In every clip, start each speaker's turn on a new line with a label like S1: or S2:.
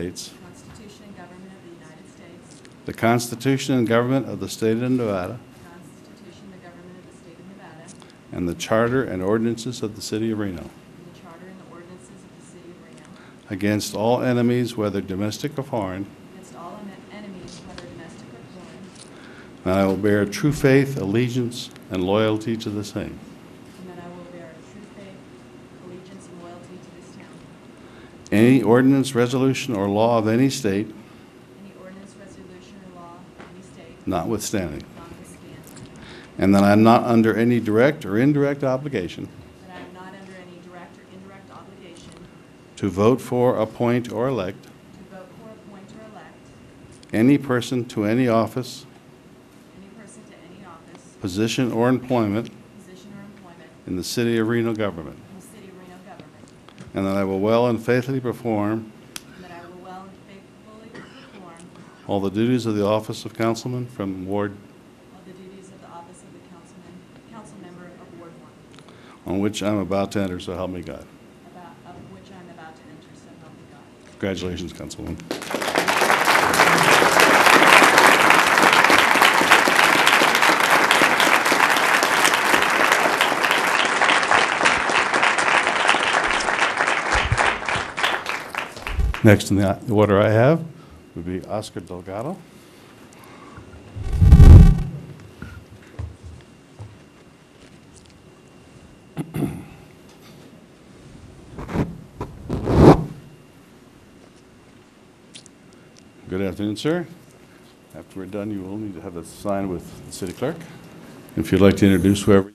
S1: States,
S2: Constitution and government of the United States,
S1: the Constitution and government of the state of Nevada,
S2: the Constitution and the government of the state of Nevada, and
S1: and the charter and ordinances of the city of Reno,
S2: the charter and the ordinances of the city of Reno,
S1: against all enemies, whether domestic or foreign,
S2: against all en- enemies, whether domestic or foreign,
S1: and I will bear true faith, allegiance, and loyalty to the same,
S2: and that I will bear true faith, allegiance, and loyalty to this town.
S1: any ordinance, resolution, or law of any state
S2: Any ordinance, resolution, or law of any state
S1: notwithstanding,
S2: notwithstanding,
S1: and that I am not under any direct or indirect obligation
S2: that I am not under any direct or indirect obligation
S1: to vote for, appoint, or elect
S2: to vote for, appoint, or elect
S1: any person to any office,
S2: any person to any office,
S1: position, or employment
S2: position, or employment
S1: in the city of Reno government,
S2: in the city of Reno government,
S1: and that I will well and faithfully perform
S2: And that I will well and faithfully perform
S1: all the duties of the office of councilman from ward
S2: all the duties of the office of the councilman, council member of Ward One,
S1: on which I'm about to enter, so help me God.
S2: about, of which I'm about to enter, so help me God.
S1: Congratulations, Councilwoman. Next in the order I have would be Oscar Delgado. Good afternoon, sir. After we're done, you will need to have a sign with the city clerk. If you'd like to introduce whoever.
S3: I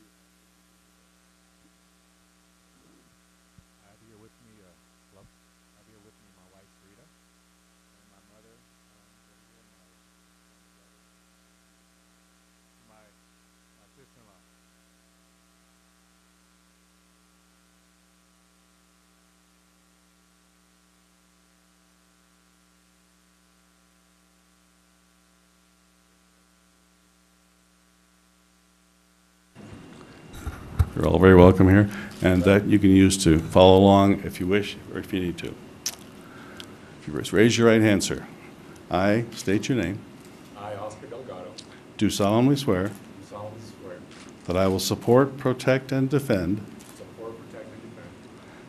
S3: have here with me, uh, hello? I have here with me my wife Rita and my mother, um, over here, my, my brother, my, my sister-in-law.
S1: You're all very welcome here, and that you can use to follow along if you wish or if you need to. If you just raise your right hand, sir. I state your name,
S4: I, Oscar Delgado,
S1: do solemnly swear
S4: do solemnly swear to
S1: that I will support, protect, and defend
S4: support, protect, and defend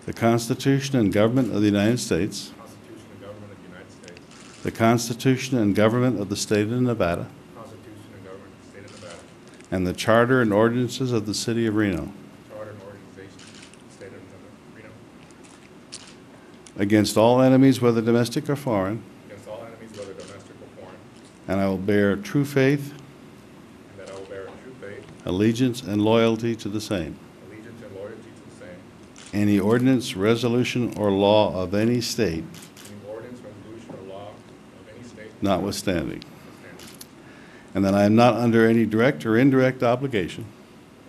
S1: the Constitution and government of the United States,
S4: the Constitution and government of the United States, the
S1: the Constitution and government of the state of Nevada,
S4: Constitution and government of the state of Nevada,
S1: and the charter and ordinances of the city of Reno,
S4: the charter and organization of the state of Nevada, Reno,
S1: against all enemies, whether domestic or foreign,
S4: against all enemies, whether domestic or foreign,
S1: and I will bear true faith,
S4: and that I will bear true faith,
S1: allegiance, and loyalty to the same.
S4: allegiance, and loyalty to the same,
S1: Any ordinance, resolution, or law of any state
S4: any ordinance, resolution, or law of any state.
S1: notwithstanding,
S4: notwithstanding,
S1: and that I am not under any direct or indirect obligation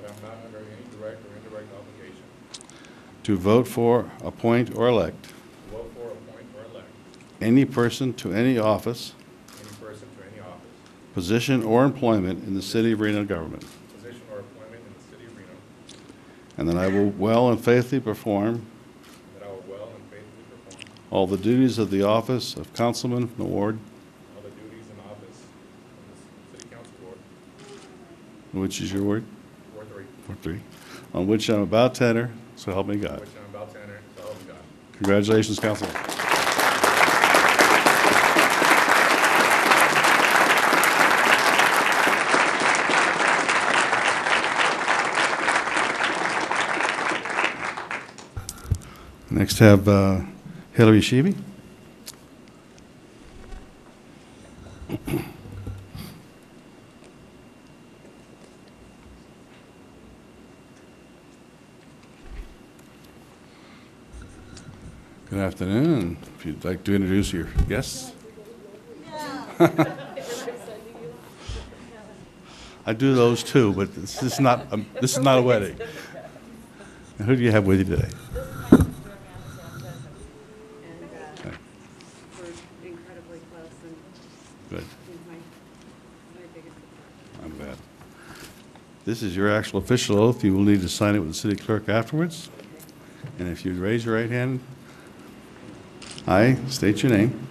S4: That I am not under any direct or indirect obligation
S1: to vote for, appoint, or elect
S4: to vote for, appoint, or elect
S1: any person to any office,
S4: any person to any office,
S1: position, or employment in the city of Reno government,
S4: position, or appointment in the city of Reno,
S1: and that I will well and faithfully perform
S4: and that I will well and faithfully perform
S1: all the duties of the office of councilman from the ward
S4: All the duties in office of the city council board,
S1: Which is your word?
S4: Ward Three,
S1: Or three? On which I'm about to enter, so help me God.
S4: which I'm about to enter, so help me God.
S1: Congratulations, Council. Next have uh, Hillary Sheeby. Good afternoon. If you'd like to introduce your guests. I do those too, but this is not, um, this is not a wedding. And Who do you have with you today?
S5: and uh, we're incredibly close and
S1: Good.
S5: he's my, my biggest supporter.
S1: I'm glad. This is your actual official oath. You will need to sign it with the city clerk afterwards. And if you'd raise your right hand. I state your name.